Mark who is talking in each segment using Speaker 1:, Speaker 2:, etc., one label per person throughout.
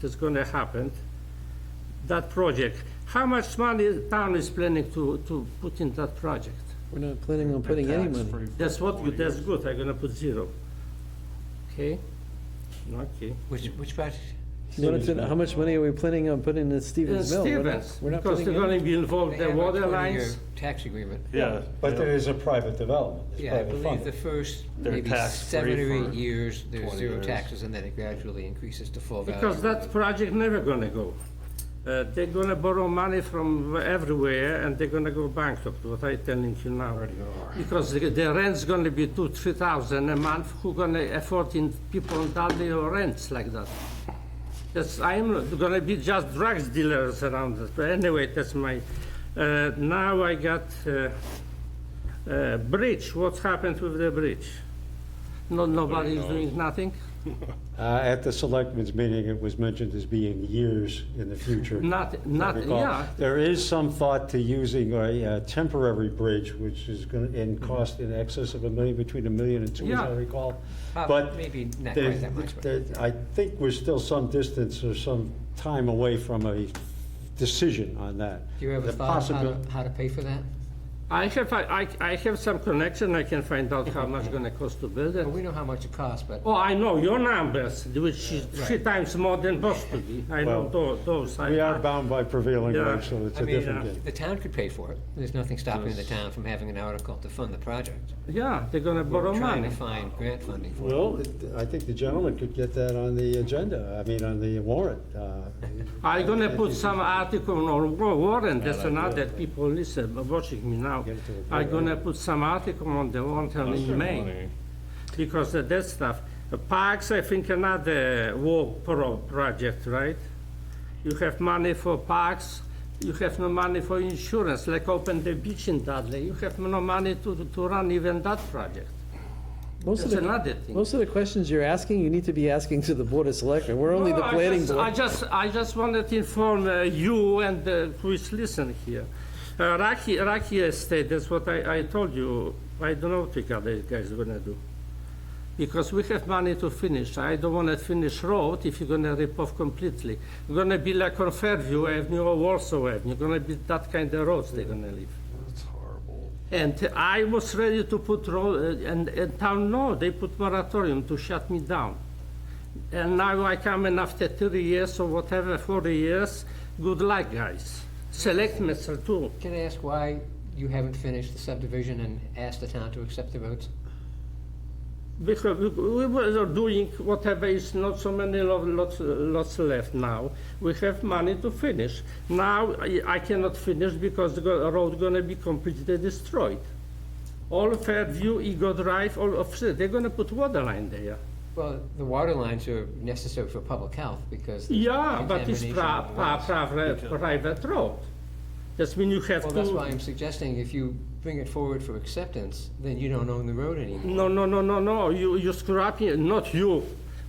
Speaker 1: that's gonna happen, that project, how much money town is planning to, to put in that project?
Speaker 2: We're not planning on putting any money.
Speaker 1: That's what, you- that's good, I'm gonna put zero. Okay? Okay.
Speaker 3: Which, which project?
Speaker 2: You wanted to know How much money are we planning on putting in Stevens Mill? We're not-
Speaker 1: Stevens,
Speaker 2: We're not
Speaker 1: because
Speaker 2: putting
Speaker 1: they're
Speaker 2: any.
Speaker 1: gonna be involved,
Speaker 3: They
Speaker 1: the
Speaker 3: have a
Speaker 1: water
Speaker 3: 20-year
Speaker 1: lines.
Speaker 3: Tax agreement.
Speaker 4: Yeah.
Speaker 5: But there is a private development, it's
Speaker 3: Yeah, I
Speaker 5: private
Speaker 3: believe the
Speaker 5: funding.
Speaker 3: first
Speaker 4: They're
Speaker 3: maybe
Speaker 4: tax-free
Speaker 3: seven or eight
Speaker 4: for
Speaker 3: years, there's
Speaker 4: 20
Speaker 3: zero
Speaker 4: years.
Speaker 3: taxes, and then it gradually increases to full value.
Speaker 1: Because that project never gonna go. Uh, They're gonna borrow money from everywhere, and they're gonna go bankrupt, what I telling you now. Because the the rent's gonna be two, three thousand a month, who gonna afford in people in Dudley or rents like that? That's, I'm gonna be just drugs dealers around this, but anyway, that's my, uh, now I got, uh, uh, bridge, what happened with the bridge? No, nobody is doing nothing?
Speaker 5: Uh, At the selectmen's meeting, it was mentioned as being years in the future.
Speaker 1: Not,
Speaker 5: if I
Speaker 1: not,
Speaker 5: recall.
Speaker 1: yeah,
Speaker 5: There is some thought to using a uh, temporary bridge, which is going to,
Speaker 3: Mm-hmm.
Speaker 5: and cost in excess of a million, between a million and two, as I
Speaker 1: Yeah.
Speaker 5: recall.
Speaker 3: Uh,
Speaker 5: But
Speaker 3: Maybe not
Speaker 5: There-
Speaker 3: quite that much, but.
Speaker 5: there- I think we're still some distance or some time away from a decision on that.
Speaker 3: Do you have a
Speaker 5: The
Speaker 3: thought of how
Speaker 5: possibil-
Speaker 3: to, how to pay for that?
Speaker 1: I have, I, I have some connection, I can find out how much gonna cost to build it.
Speaker 3: Well, we know how much it costs, but
Speaker 1: Oh, I know your numbers, which is three times more than Boston. I know
Speaker 5: Well,
Speaker 1: tho- those. I-
Speaker 5: We are bound by prevailing
Speaker 1: Yeah.
Speaker 5: wage, so it's
Speaker 3: I
Speaker 5: a
Speaker 3: mean,
Speaker 5: different
Speaker 1: uh,
Speaker 5: game.
Speaker 3: the town could pay for it. There's nothing stopping the town from having an article to fund the project.
Speaker 1: Yeah, they're gonna borrow
Speaker 3: We're trying to
Speaker 1: money.
Speaker 3: find grant funding for it.
Speaker 5: Well, it- I think the gentleman could get that on the agenda, I mean, on the warrant. uh,
Speaker 1: i gonna put some article on wa- warrant, that's another people listen, watching me now.
Speaker 5: Get it to the
Speaker 1: i
Speaker 5: board.
Speaker 1: gonna put some article on the warrant in May. Because of that stuff. Uh, Parks, I think another walk pro project, right? You have money for parks, you have no money for insurance, like open the beach in Dudley. You have no money to, to run even that project.
Speaker 2: Most of
Speaker 1: That's
Speaker 2: the,
Speaker 1: another thing.
Speaker 2: most of the questions you're asking, you need to be asking to the Board of Selectmen. We're only the
Speaker 1: No, I
Speaker 2: planning
Speaker 1: just- I
Speaker 2: board.
Speaker 1: just, I just wanted to inform uh, you and uh, who is listening here. Uh, Raki, Raki Estate, that's what I, I told you, I don't know what the other guys are gonna do. Because we have money to finish, I don't wanna finish road if you're gonna rip off completely. We're gonna be like on Fairview Avenue or Warsaw Avenue, gonna be that kind of roads they're gonna leave. And I was ready to put road, uh, and, and town, no, they put moratorium to shut me down. And now I come in after 30 years or whatever, 40 years, good luck, guys. Select myself too.
Speaker 3: Can I ask why you haven't finished the subdivision and asked the town to accept the roads?
Speaker 1: Because we- we were doing whatever is not so many lo- lots, lots left now. We have money to finish. Now I I cannot finish because the go- road gonna be completely destroyed. All Fairview, Ego Drive, all of, they're gonna put water line there.
Speaker 3: Well, the water lines are necessary for public health because. there's
Speaker 1: Yeah, but it's
Speaker 3: contamination
Speaker 1: pri-
Speaker 3: of
Speaker 1: pri-
Speaker 3: wells.
Speaker 1: private, private road. That's mean you have
Speaker 3: Well,
Speaker 1: to.
Speaker 3: that's why I'm suggesting if you bring it forward for acceptance, then you don't own the road anymore.
Speaker 1: No, no, no, no, no, you, you screw up, here. not you.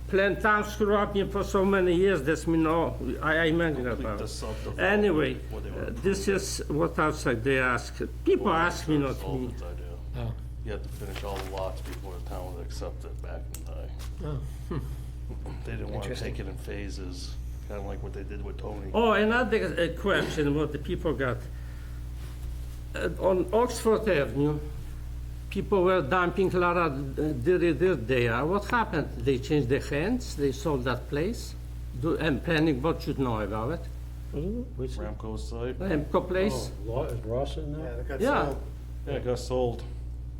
Speaker 1: Plan town screw up here for so many years, that's me, no, I, I imagine about.
Speaker 4: the subdivision,
Speaker 1: Anyway,
Speaker 4: what they were
Speaker 1: uh, this is what outside they ask, people ask me, not me.
Speaker 4: Sullivan's idea.
Speaker 3: Oh.
Speaker 4: You had to finish all the lots before the town would accept it back in the day.
Speaker 3: Oh,
Speaker 4: They didn't want to
Speaker 3: Interesting.
Speaker 4: take it in phases, kind of like what they did with Tony.
Speaker 1: Oh, another uh, question what the people got. Uh, on Oxford Avenue, people were dumping Lara Diri uh, Dirt there. What happened? They changed their hands, they sold that place, Do- and planning board should know about it.
Speaker 5: Which,
Speaker 4: Ramco site,
Speaker 1: Emco Place.
Speaker 5: oh, Law- is Ross in there?
Speaker 1: Yeah.
Speaker 4: yeah, it got sold.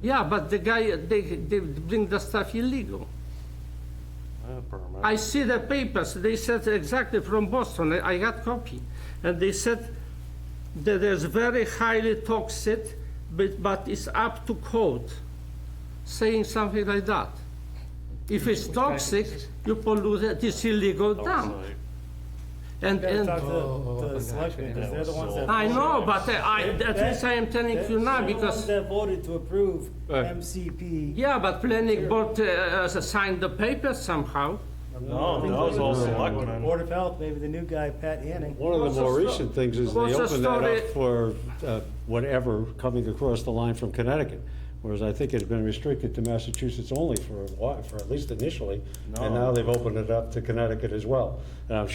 Speaker 1: Yeah, but the guy, they, they bring the stuff illegal.
Speaker 4: I had a permit.
Speaker 1: I see the papers, they said exactly from Boston, I I got copy. And they said that there's very highly toxic, but, but it's up to code, saying something like that. If it's toxic, you pollute it, it's illegal
Speaker 4: Oh,
Speaker 1: dump.
Speaker 4: Site.
Speaker 1: And,
Speaker 6: gotta
Speaker 1: and,
Speaker 6: talk to
Speaker 3: Oh,
Speaker 6: the-
Speaker 3: oh,
Speaker 6: to
Speaker 3: oh,
Speaker 6: the selectmen, because they're the ones that.
Speaker 1: I know,
Speaker 6: voted.
Speaker 1: but I, at least I am telling you now,
Speaker 6: They're the ones
Speaker 1: because,
Speaker 6: that voted to approve
Speaker 5: Right.
Speaker 6: MCP.
Speaker 1: yeah, but planning board uh, uh, signed the papers somehow.
Speaker 4: No, that was all selectmen.
Speaker 6: Board of Health, maybe the new guy, Pat Hanning.
Speaker 5: One of
Speaker 1: What's
Speaker 5: the
Speaker 1: the
Speaker 5: more
Speaker 1: sto-
Speaker 5: recent things is they
Speaker 1: what's the
Speaker 5: opened that
Speaker 1: story-
Speaker 5: up for uh, whatever coming across the line from Connecticut, whereas I think it had been restricted to Massachusetts only for a while, for at least initially, and
Speaker 4: No.
Speaker 5: now they've opened it up to Connecticut as well. And I'm